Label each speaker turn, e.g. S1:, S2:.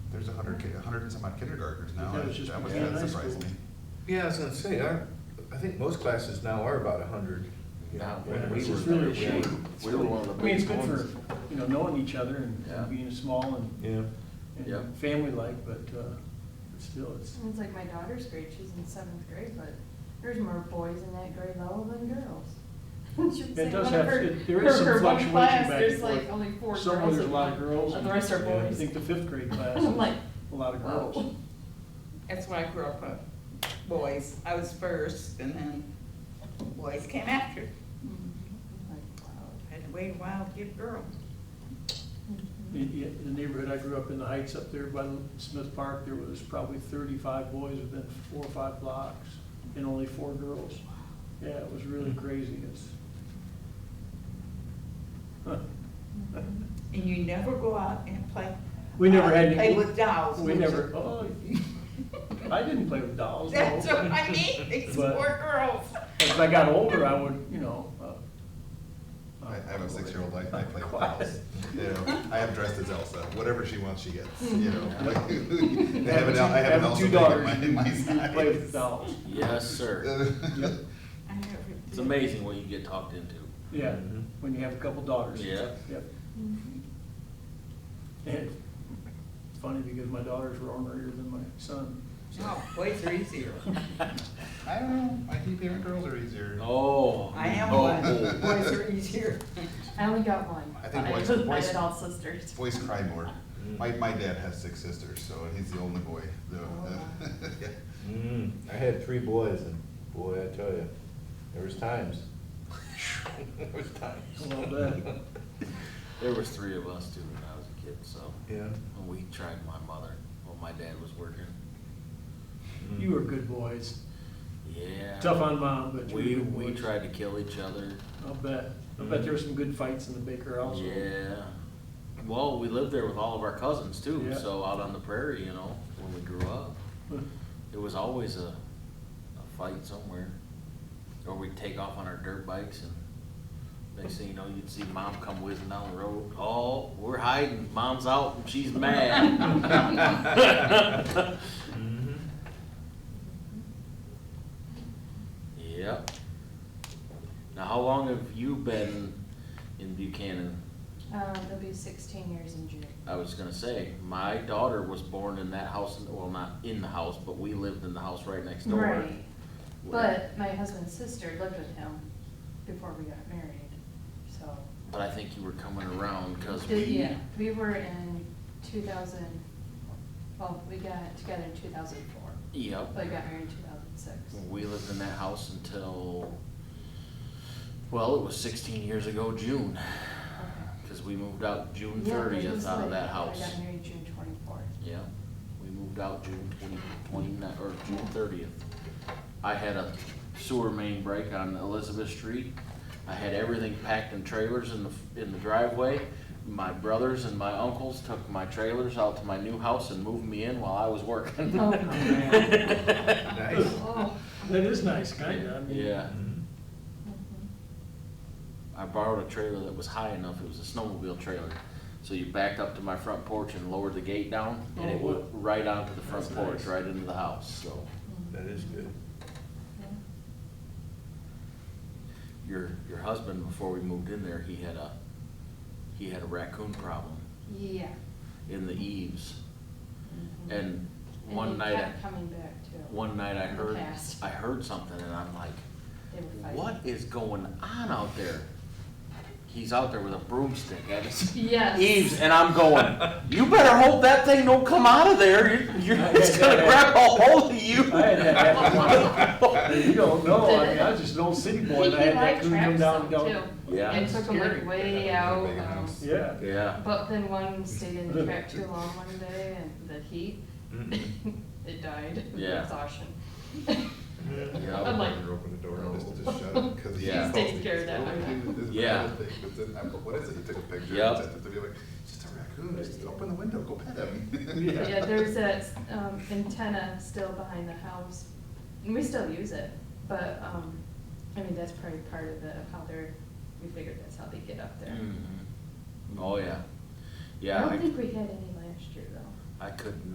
S1: hundred, ki- hundred and some odd kindergartners now.
S2: That was just
S1: That was,
S2: beginning
S1: that
S2: high
S1: surprised me.
S2: school.
S3: Yeah, I was gonna say, I, I think most classes now are about a hundred.
S4: Now,
S3: Yeah.
S4: when we
S2: Which
S4: were
S2: is really
S4: there,
S2: a
S4: we
S2: shame.
S4: were- we were one of the
S2: I mean, it's
S4: big
S2: good for,
S4: ones.
S2: you know, knowing each other and
S4: Yeah.
S2: being small and,
S3: Yeah.
S4: Yeah.
S2: and family-like, but, uh, still, it's,
S5: It's like my daughter's grade, she's in seventh grade, but there's more boys in that grade level than girls. She was
S2: It
S5: like,
S2: does
S5: one
S2: have-
S5: of her-
S2: it- there is
S5: her-
S2: some
S5: her one
S2: fluctuation
S5: class,
S2: back and
S5: There's like
S2: forth.
S5: only four girls.
S2: somewhere there's a
S5: in
S2: lot
S5: it,
S2: of girls.
S5: And the rest are
S2: Yeah, I
S5: boys.
S2: think the fifth grade class
S5: I'm like,
S2: is a lot of girls.
S5: wow.
S6: That's what I grew up with, boys. I was first and then boys came after.
S5: Mhm. I'm like, wow.
S6: I had to wait a while to get a girl.
S2: The, the neighborhood I grew up in, the heights up there by Smith Park, there was probably thirty-five boys within four or five blocks, and only four girls. Yeah, it was really crazy, it's. Huh.
S6: And you never go out and play.
S2: We never
S6: uh,
S2: had.
S6: Play with dolls.
S2: We
S6: would you?
S2: never, oh, I didn't play with dolls, no.
S6: That's what I mean, these
S2: But-
S6: poor girls.
S2: As I got older, I would, you know. uh,
S1: I I have a six-year-old, I, I play with
S2: Quiet.
S1: dolls. You know, I am dressed as Elsa, whatever she wants, she gets, you know. like, I have an, El- I have an
S2: Having
S1: Elsa
S2: two
S1: thing at
S2: daughters,
S1: my,
S2: you-
S1: my
S2: you
S1: side.
S2: Play with dolls,
S4: Yes, sir.
S2: Yep.
S6: I never
S4: It's
S6: did.
S4: amazing what you get talked into.
S2: yeah,
S3: Mhm.
S2: when you have a couple daughters.
S4: Mm-hmm. Yeah.
S2: Yep.
S5: Mm-hmm.
S2: And it's funny because my daughters were ornerier than my son. so-
S6: No, Oh, boys are easier.
S1: I don't know, I think parent girls are easier.
S4: Oh.
S6: I am
S4: oh,
S6: one.
S4: oh.
S6: Boys are easier.
S5: I only got one.
S1: I think boys-
S5: I
S1: boys-
S5: had all sisters.
S1: Boys cry more. My, my dad has six sisters, so he's the only boy, though.
S2: Oh,
S1: Yeah.
S3: Mm, I had three boys and boy, I tell you, there was times. There was times.
S2: Well, that-
S4: There was three of us too when I was a kid, so.
S3: Yeah.
S4: When we tried my mother, when my dad was working.
S3: mm.
S2: You were good boys,
S4: Mm-hmm. Yeah.
S2: tough on mom, but you were
S4: We,
S2: good
S4: we
S2: boys.
S4: tried to kill each other.
S2: I'll bet, I'll bet there were some good fights in the Baker household.
S4: Yeah. Well, we lived there with all of our cousins too,
S2: Yeah.
S4: so out on the prairie, you know, when we grew up. There was always a, a fight somewhere. Or we'd take off on our dirt bikes and next thing you know, you'd see mom come whizzing down the road. Oh, we're hiding. Mom's out and she's mad.
S3: Mhm.
S4: Yep. Now, how long have you been in Buchanan?
S5: Uh, they'll be sixteen years in June.
S1: Uh,
S4: I was gonna say, my daughter was born in that house, well, not in the house, but we lived in the house right next door.
S5: Right, but my husband's sister lived with him before we got married, so.
S4: But I think you were coming around, cause
S5: The-
S4: we.
S5: Yeah, we were in two thousand, well, we got together in two thousand four,
S4: Yep.
S5: but we got married in two thousand six.
S4: We lived in that house until, well, it was sixteen years ago, June, cause we moved out June thirtieth out of that
S5: I
S4: house.
S5: got married June twenty-fourth.
S4: Yeah, we moved out June twenty, twenty-nine, or June thirtieth. I had a sewer main break on Elizabeth Street. I had everything packed in trailers in the, in the driveway. My brothers and my uncles took my trailers out to my new house and moved me in while I was working.
S5: Oh,
S3: Nice.
S5: Oh.
S2: That is nice, kinda, I mean.
S4: Yeah.
S3: Mhm.
S5: Mhm.
S4: I borrowed a trailer that was high enough, it was a snowmobile trailer. So you backed up to my front porch and lowered the gate down, and it
S2: Oh,
S4: went right onto the front
S2: That's
S4: porch,
S2: nice.
S4: right into the house, so.
S3: That is good.
S5: Yeah.
S4: Your, your husband, before we moved in there, he had a, he had a raccoon problem
S5: Yeah.
S4: in the eaves.
S5: Mhm.
S4: And
S5: And
S4: one
S5: they
S4: night,
S5: kept
S4: I-
S5: Coming back too.
S4: one night I
S5: In the
S4: heard,
S5: past.
S4: I heard something and I'm like,
S5: They were fighting.
S4: what is going on out there? He's out there with a broomstick at his
S5: Yes.
S4: eaves, and I'm going, you better hope that thing don't come out of there. You're, you're, it's gonna grab a hold of you.
S2: I had that happen once. You don't know, I mean, I was just an old city boy, and I had that coon come down and down.
S5: He liked traps though, too.
S4: Yeah.
S5: And took them like
S2: Scary.
S5: way
S1: Yeah,
S5: out,
S1: big
S5: um,
S1: house.
S2: Yeah,
S4: Yeah,
S5: but then one stayed in the trap too long one day and the heat, it died of
S4: Mm-hmm. Yeah.
S5: exhaustion.
S4: Yeah.
S5: I'm like,
S1: Never open the door, I'm just, just shut it, cause.
S4: Yeah.
S5: He's taking care of that.
S1: What do we do? This is
S4: Yeah.
S1: another thing, but then, I- but what is it, you took a picture,
S4: Yep.
S1: and sent it to me, like, just a raccoon, just open the window, go pet him.
S2: Yeah.
S5: yeah, there's that, um, antenna still behind the house, and we still use it, but, um, I mean, that's probably part of the, how they're, we figured that's how they get up there.
S4: Mhm. Oh, yeah.
S5: I
S4: Yeah,
S5: don't think
S4: I,
S5: we had any last year though.
S4: I couldn't